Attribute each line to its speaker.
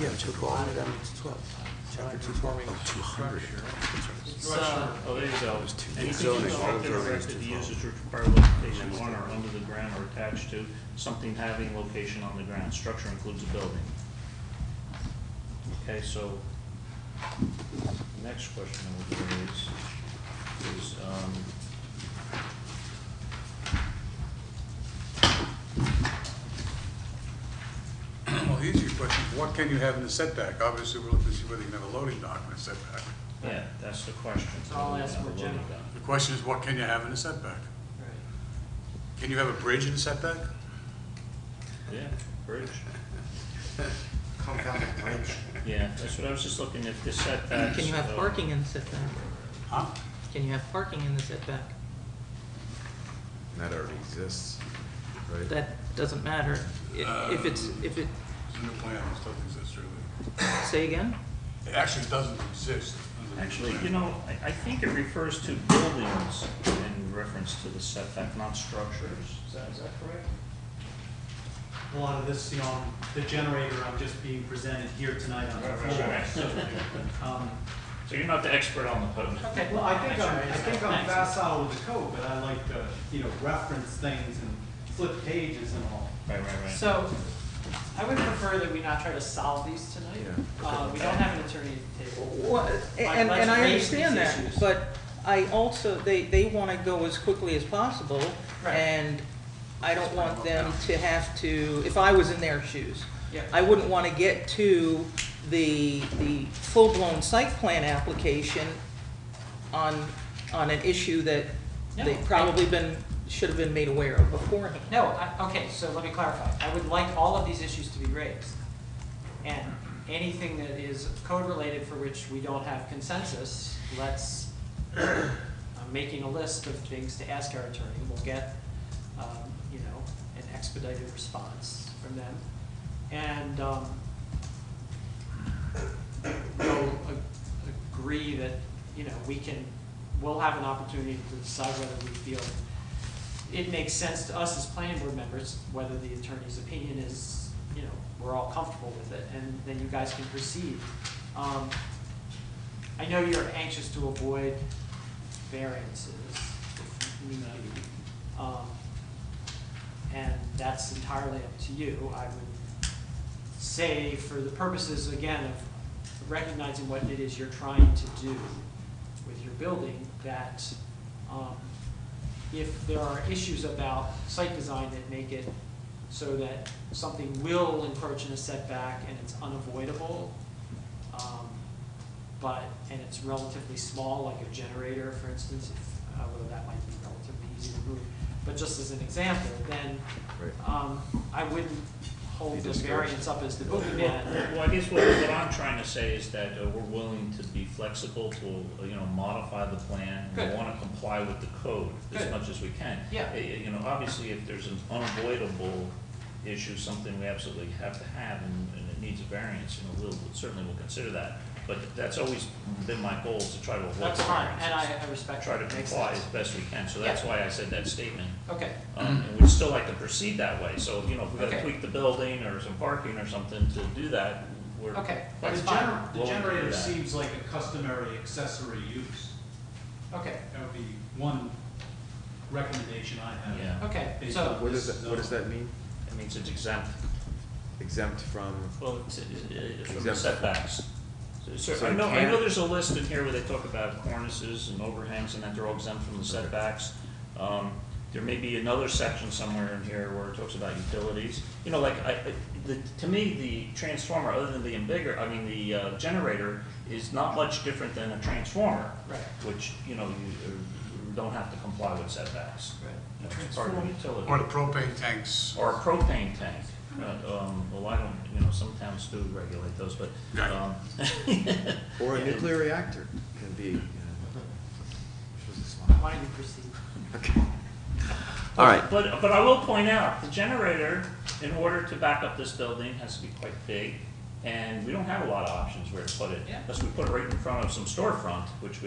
Speaker 1: Yeah, but you put all the way down to twelve, chapter two twelve.
Speaker 2: Oh, 200.
Speaker 3: So,
Speaker 4: Oh, there you go. Anything
Speaker 2: Zoning,
Speaker 4: constructed
Speaker 2: all
Speaker 4: or
Speaker 2: zoning is
Speaker 4: erected
Speaker 2: too
Speaker 4: used
Speaker 2: far.
Speaker 4: as required location on or under the ground or attached to something having location on the ground. Structure includes a building. Okay, so, the next question I would raise is, um,
Speaker 5: Well, the easier question, what can you have in a setback? Obviously, we're looking to see whether you can have a loading dock in a setback.
Speaker 4: yeah, that's the question.
Speaker 3: So I'll ask more general.
Speaker 5: The question is, what can you have in a setback?
Speaker 3: right.
Speaker 5: Can you have a bridge in a setback?
Speaker 4: Yeah, bridge.
Speaker 1: Come down the bridge.
Speaker 4: Yeah, that's what I was just looking at, the setbacks.
Speaker 6: Can you have
Speaker 4: uh,
Speaker 6: parking in the setback?
Speaker 5: Huh?
Speaker 6: Can you have parking in the setback?
Speaker 2: That already exists, right?
Speaker 6: That doesn't matter. I- If it's, if it,
Speaker 5: It's in the plan, it doesn't exist really.
Speaker 6: say again?
Speaker 5: It actually doesn't exist. under the
Speaker 4: Actually,
Speaker 5: plan.
Speaker 4: you know, I, I think it refers to buildings in reference to the setback, not structures. Is that, is that correct?
Speaker 7: a lot of this, you know, the generator, I'm just being presented here tonight on the floor. Um,
Speaker 4: So you're not the expert on the code.
Speaker 7: Okay, well, I think I'm, I think I'm facile with the code, but I like to, you know, reference things and flip pages and all.
Speaker 4: Right, right, right.
Speaker 3: So, I would prefer that we not try to solve these tonight.
Speaker 2: Yeah.
Speaker 3: Uh, we don't have an attorney at the table.
Speaker 6: Well, and,
Speaker 3: let's
Speaker 6: and I
Speaker 3: raise these
Speaker 6: understand that,
Speaker 3: issues.
Speaker 6: but I also, they, they wanna go as quickly as possible.
Speaker 3: Right.
Speaker 6: And I don't want them to have to, if I was in their shoes,
Speaker 3: Yeah.
Speaker 6: I wouldn't wanna get to the, the full-blown site plan application on, on an issue that
Speaker 3: No,
Speaker 6: they've
Speaker 3: I-
Speaker 6: probably been, should have been made aware of beforehand.
Speaker 3: No, I, okay, so let me clarify. I would like all of these issues to be raised. And anything that is code-related for which we don't have consensus, let's, uh, I'm making a list of things to ask our attorney. We'll get, um, you know, an expedited response from them. And, um, we'll a- agree that, you know, we can, we'll have an opportunity to decide whether we feel it makes sense to us as planning board members, whether the attorney's opinion is, you know, we're all comfortable with it, and then you guys can proceed. Um, I know you're anxious to avoid variances if need be. Um, And that's entirely up to you. I would say for the purposes, again, of recognizing what it is you're trying to do with your building, that um, if there are issues about site design that make it so that something will encroach in a setback and it's unavoidable, um, but, and it's relatively small, like a generator, for instance, if, uh, although that might be relatively easy to move, but just as an example, then
Speaker 2: Right.
Speaker 3: um, I wouldn't hold
Speaker 2: Be
Speaker 3: the
Speaker 2: discouraged.
Speaker 3: variance up as the boogeyman.
Speaker 4: Well, I guess what, what I'm trying to say is that uh, we're willing to be flexible to, you know, modify the plan. We
Speaker 3: Good.
Speaker 4: want to comply with the code as
Speaker 3: Good.
Speaker 4: much as we can.
Speaker 3: Yeah.
Speaker 4: Uh, You know, obviously, if there's an unavoidable issue, something we absolutely have to have and, and it needs a variance, you know, we'll, we'll- certainly we'll consider that. But that's always been my goal, is to try to avoid
Speaker 3: That's fine,
Speaker 4: variances.
Speaker 3: and I, I respect
Speaker 4: Try
Speaker 3: that.
Speaker 4: to
Speaker 3: Makes
Speaker 4: comply as
Speaker 3: sense.
Speaker 4: best we can, so that's
Speaker 3: Yeah.
Speaker 4: why I said that statement.
Speaker 3: Okay,
Speaker 4: Um, and we'd still like to proceed that way, so, you know, if we gotta
Speaker 3: Okay.
Speaker 4: tweak the building or some parking or something to do that, we're.
Speaker 3: Okay,
Speaker 7: But
Speaker 4: that's
Speaker 7: the
Speaker 4: fine.
Speaker 7: gener- The
Speaker 4: Willing to do
Speaker 7: generator
Speaker 4: that.
Speaker 7: seems like a customary accessory use.
Speaker 3: okay,
Speaker 7: That would be one recommendation I have.
Speaker 4: Yeah.
Speaker 3: okay,
Speaker 7: Based
Speaker 3: so,
Speaker 7: on
Speaker 2: What does
Speaker 7: this
Speaker 2: that, what does
Speaker 7: zone.
Speaker 2: that mean?
Speaker 4: It means it's exempt,
Speaker 2: Exempt from,
Speaker 4: well, it's, it's from the
Speaker 2: Exempt.
Speaker 4: setbacks. So,
Speaker 2: So
Speaker 4: I
Speaker 2: it
Speaker 4: know, I
Speaker 2: can't-
Speaker 4: know there's a list in here where they talk about cornices and overhangs and that they're all exempt from the setbacks. Um, there may be another section somewhere in here where it talks about utilities. You know, like, I, I- the, to me, the transformer, other than being bigger, I mean, the, uh, generator is not much different than a transformer.
Speaker 3: right,
Speaker 4: which, you know, you uh, don't have to comply with setbacks.
Speaker 3: right,
Speaker 4: You know, It's part of the utility.
Speaker 5: Or the propane tanks,
Speaker 4: Or a propane tank. Uh, um, Well, I don't, you know, some towns do regulate those, but.
Speaker 5: Right.
Speaker 4: um,
Speaker 2: or a
Speaker 4: Yeah.
Speaker 2: nuclear reactor can be, you know. which was this one?
Speaker 3: why don't you proceed?
Speaker 2: Okay. All right,
Speaker 4: But, but I will point out, the generator, in order to back up this building, has to be quite big. And we don't have a lot of options where to put it.
Speaker 3: Yeah.
Speaker 4: Unless we put it right in front of some storefront, which we